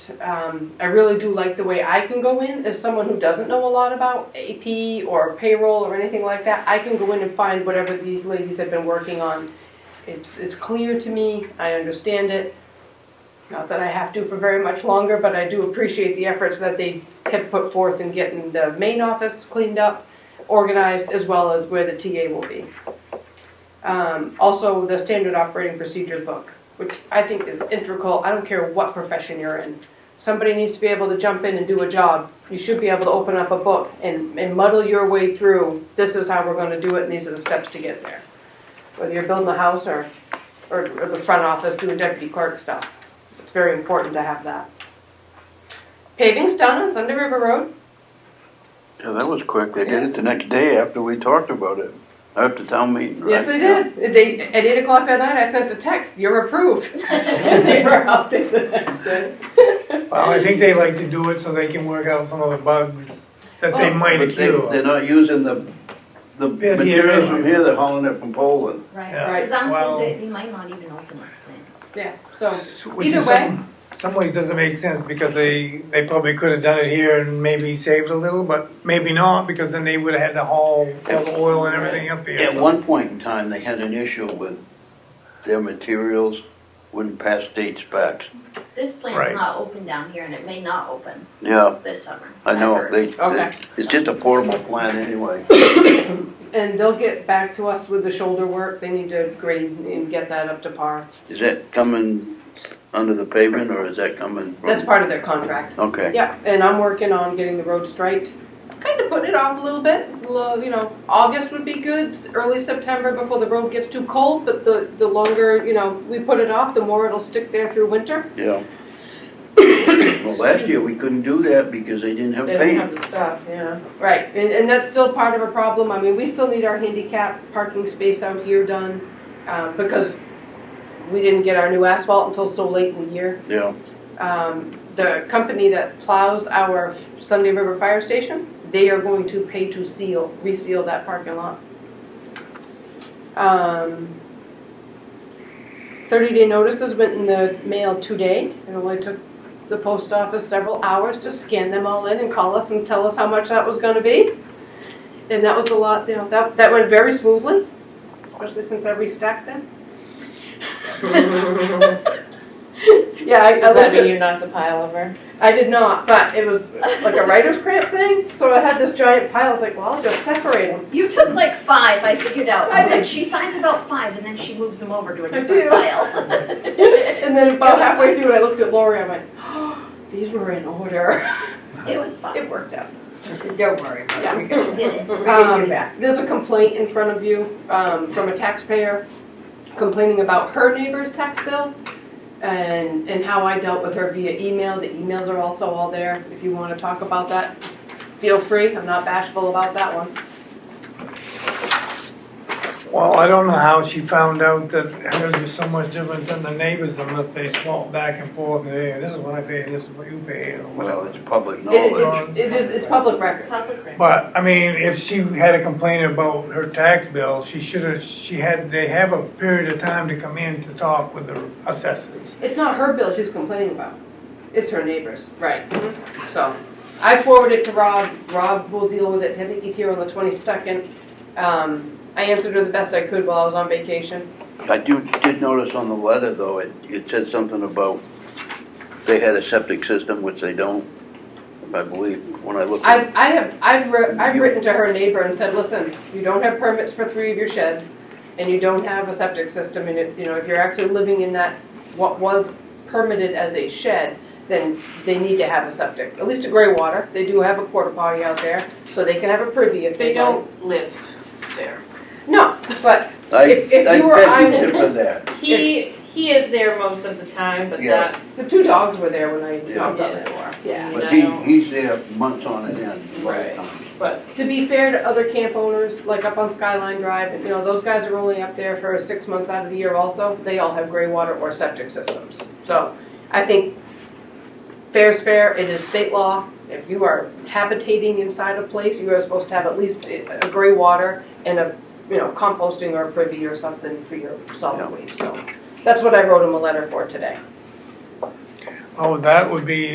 Um, I really do like the way I can go in as someone who doesn't know a lot about AP or payroll or anything like that. I can go in and find whatever these ladies have been working on. It's, it's clear to me. I understand it. Not that I have to for very much longer, but I do appreciate the efforts that they have put forth in getting the main office cleaned up, organized, as well as where the TA will be. Um, also, the standard operating procedure book, which I think is integral. I don't care what profession you're in. Somebody needs to be able to jump in and do a job. You should be able to open up a book and, and muddle your way through. This is how we're going to do it, and these are the steps to get there. Whether you're building a house or, or the front office doing deputy clerk stuff, it's very important to have that. Paving's done on Sunday River Road. Yeah, that was quick. They did it the next day after we talked about it, after town meeting, right? Yes, they did. They at eight o'clock that night, I sent a text. You're approved. and they were out there the next day. Well, I think they like to do it so they can work out some of the bugs that they Well, might But they, they're accrue. not using the, the Yeah, materials yeah. from here, they're hauling it from Poland. Yeah, Right. Right, because I'm well- thinking they might not even open this thing. Yeah. So Which either is way. some- Some ways doesn't make sense because they, they probably could have done it here and maybe saved a little, but maybe not because then they would have had to haul all the oil and everything up here. At one point in time, they had an issue with their materials wouldn't pass state specs. This plant's Right. not open down here and it may not open Yeah, this summer. I know, ever. they, Okay. they- it's just a portable plant anyway. And they'll get back to us with the shoulder work. They need to grade and get that up to par. Is that coming under the pavement or is that coming from? That's part of their contract. Okay, Yeah, and I'm working on getting the road striped. Kind of putting it off a little bit. Lo- You know, August would be good, early September before the road gets too cold. But the, the longer, you know, we put it off, the more it'll stick there through winter. yeah. Well, last year, we couldn't do that because they didn't have They don't paint. have the stuff, yeah. Right, and, and that's still part of a problem. I mean, we still need our handicap parking space out here done um, because we didn't get our new asphalt until so late in the year. Yeah, um, the company that plows our Sunday River Fire Station, they are going to pay to seal, reseal that parking lot. Um, Thirty day notices went in the mail today, it only took the post office several hours to scan them all in and call us and tell us how much that was gonna be. And that was a lot, you know, that, that went very smoothly, especially since I restacked them. Yeah, I, I Does that looked at- mean you knocked the pile over? I did not, but it was like a writer's cramp thing. So I had this giant pile. I was like, well, I'll just separate them. You took like five, I figured out. I I said, did. she signs about five and then she moves them over to a I do. different pile. and then about halfway through, I looked at Lori. I went, oh, these were in order. It was fun. It worked out. Don't worry about it, we We got, did it. we got you Um, back. There's a complaint in front of you um, from a taxpayer complaining about her neighbor's tax bill and, and how I dealt with her via email. The emails are also all there. If you want to talk about that, feel free. I'm not bashful about that one. Well, I don't know how she found out that hers was so much different than the neighbors unless they swap back and forth, hey, this is what I pay, and this is what you pay, or well, whatever. it's public It- knowledge. it's- it is, it's public record. Public record. But, I mean, if she had a complaint about her tax bill, she should have, she had, they have a period of time to come in to talk with the assessors. It's not her bill she's complaining about. It's her neighbor's. Mm-hmm. Right. So I forwarded it to Rob. Rob will deal with it. I think he's here on the 22nd. Um, I answered her the best I could while I was on vacation. I do, did notice on the letter, though, it, it said something about they had a septic system, which they don't, I believe, when I looked. I, at- I have, I've, wri- I've You- written to her neighbor and said, listen, you don't have permits for three of your sheds, and you don't have a septic system, and if, you know, if you're actually living in that, what was permitted as a shed, then they need to have a septic, at least a gray water, they do have a porta potty out there, so they can have a privy if they don't. live there. No, but, I, if- if I you were- I bet would- you did for that. He he is there most of the time, but Yeah. that's the two dogs were there when I Yeah. knocked on Yeah. the door. I Yeah. mean, But I he, don't- he's there months on end, a lot Right. of times. But to be fair to other camp owners, like up on Skyline Drive, you know, those guys are only up there for six months out of the year also. They all have gray water or septic systems. So I think fair's fair, it is state law. If you are habitating inside a place, you are supposed to have at least a gray water and a, you know, composting or privy or something for your Yeah. solid waste. So that's what I wrote him a letter for today. Oh, that would be